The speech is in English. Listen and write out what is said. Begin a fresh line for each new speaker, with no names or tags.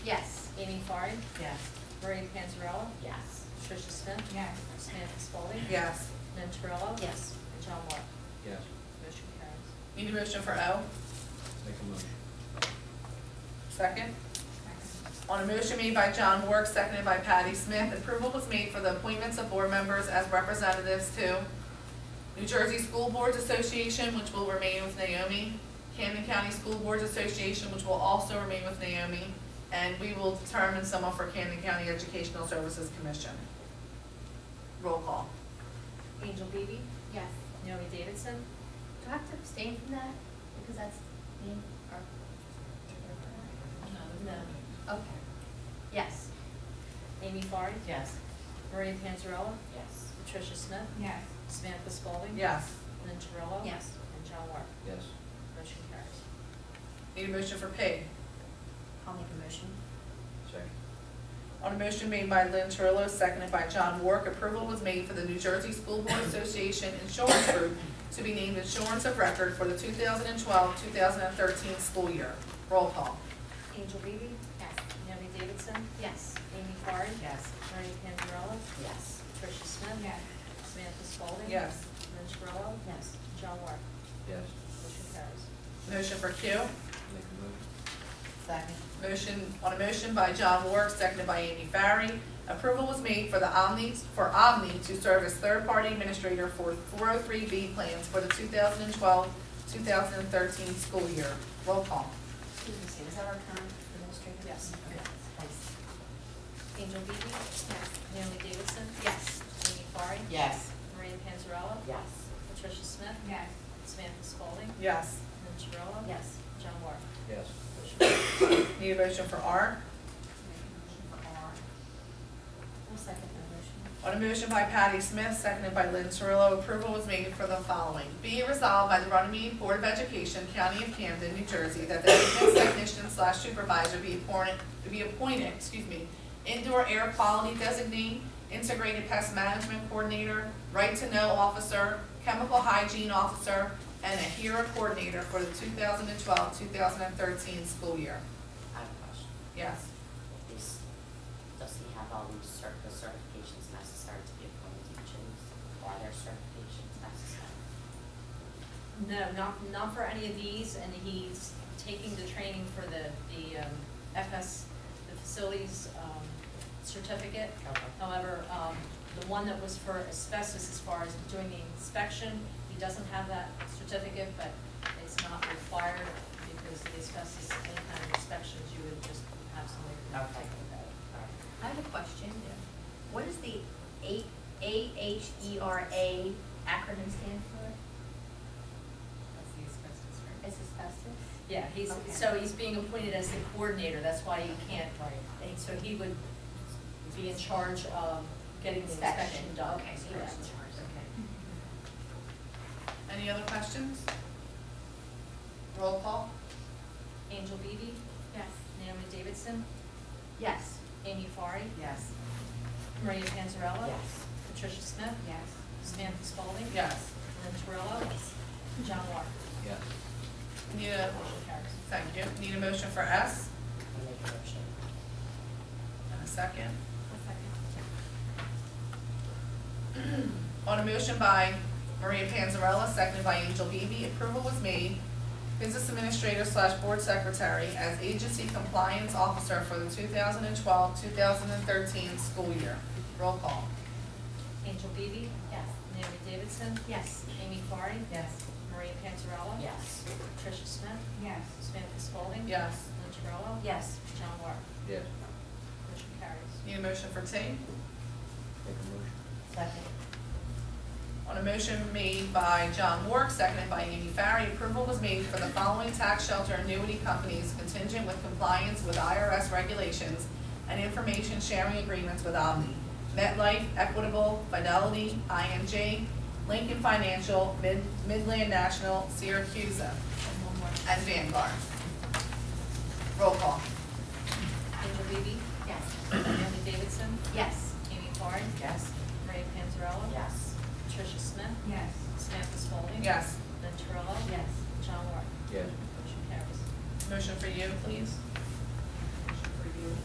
Clark,
Yes.
Maria Panzarella,
Yes.
Tricia Smith.
Yes.
Samantha Spalding.
Yes.
Lynn Terrell.
Oh, Yes.
And John Moore.
Yes,
Motion carries.
Need a motion for O?
make a motion.
Second? On a motion made by John Wark, seconded by Patty Smith, approval was made for the appointments of board members as representatives to New Jersey School Boards Association, which will remain with Naomi, Camden County School Boards Association, which will also remain with Naomi, and we will determine someone for Camden County Educational Services Commission. Roll call.
Angel Beebe,
Yes.
Naomi Davidson,
Do I have to abstain from that? Because that's me or? No. No, okay. Yes.
Amy Farr,
Yes.
Maria Panzarella,
Yes.
Tricia Smith,
Yes.
Samantha Spalding.
Yes.
Lynn Terrell.
Yes.
And John Moore.
Yes,
Motion carries.
Need a motion for P.
I'll make a motion.
second.
On a motion made by Lynn Terrell, seconded by John Wark, approval was made for the New Jersey School Board Association Insurance Group to be named Insurance of Record for the 2012-2013 school year. Roll call.
Angel Beebe,
Yes.
Naomi Davidson,
Yes.
Amy Farr,
Yes.
Maria Panzarella,
Yes.
Tricia Smith. Samantha Spalding.
Yes.
Lynn Terrell.
Yes.
John Moore.
Yes,
Motion carries.
Motion for Q.
make a motion.
Second.
Motion, on a motion by John Wark, seconded by Amy Farry, approval was made for the Omni, for Omni to serve as third-party administrator for 403B plans for the 2012-2013 school year. Roll call.
Excuse me, Sam, is that our current administrator?
Yes.
Okay, thanks.
Angel Beebe. Naomi Davidson.
Yes.
Amy Farr.
Yes.
Maria Panzarella.
Yes.
Patricia Smith.
Yes.
Samantha Spalding.
Yes.
Lynn Terrell.
Yes.
John Moore.
Yes,
Need a motion for R?
I'll second the motion.
On a motion by Patty Smith, seconded by Lynn Terrell, approval was made for the following. Be it resolved by the Runnymede Board of Education, County of Camden, New Jersey, that the maintenance technician slash supervisor be appointed, be appointed, excuse me, indoor air quality designee, integrated pest management coordinator, right to know officer, chemical hygiene officer, and a HERA coordinator for the 2012-2013 school year.
I have a question.
Yes.
Is, does he have all these cert, the certifications necessary to be appointed teachers? Are there certifications necessary?
No, not, not for any of these, and he's taking the training for the, the um, FS, the facilities um, certificate.
Okay.
However, um, the one that was for asbestos as far as doing the inspection, he doesn't have that certificate, but it's not required because the asbestos, any kind of inspections, you would just have somebody come
Okay.
take a look.
I have a question. What does the A, A H E R A acronym stand for? Is asbestos?
Yeah, he's,
Okay.
so he's being appointed as the coordinator, that's why you can't, and so he would be in charge of getting the inspection done.
Okay, so you're in
Correct.
charge,
Any other questions? Roll call?
Angel Beebe,
Yes.
Naomi Davidson,
Yes.
Amy Farah,
Yes.
Maria Panzarella.
Yes.
Patricia Smith,
Yes.
Samantha Spalding.
Yes.
Lynn Terrell, John Moore.
yes,
Need a,
Motion carries.
thank you, need a motion for S
I make a motion.
and a second. On a motion by Maria Panzarella, seconded by Angel Beebe, approval was made. Business administrator slash board secretary as agency compliance officer for the 2012-2013 school year. Roll call.
Angel Beebe,
Yes.
Naomi Davidson,
Yes.
Amy Farah,
Yes.
Maria Panzarella.
Yes.
Patricia Smith,
Yes.
Samantha Spalding.
Yes.
Lynn Terrell.
Yes.
John Moore.
yes,
Motion carries.
Need a motion for T?
make a motion.
Second.
On a motion made by John Wark, seconded by Amy Farry, approval was made for the following tax shelter annuity companies contingent with compliance with IRS regulations and information sharing agreements with Omni. MetLife, Equitable, Fidelity, INJ, Lincoln Financial, Mid- Midland National, Syracuse,
And one more.
and Vanguard. Roll call.
Angel Beebe,
Yes.
Naomi Davidson,
Yes.
Amy Farah,
Yes.
Maria Panzarella.
Yes.
Patricia Smith,
Yes.
Samantha Spalding.
Yes.
Lynn Terrell.
Yes.
John Moore.
Yes,
Motion carries.
Motion for you, please.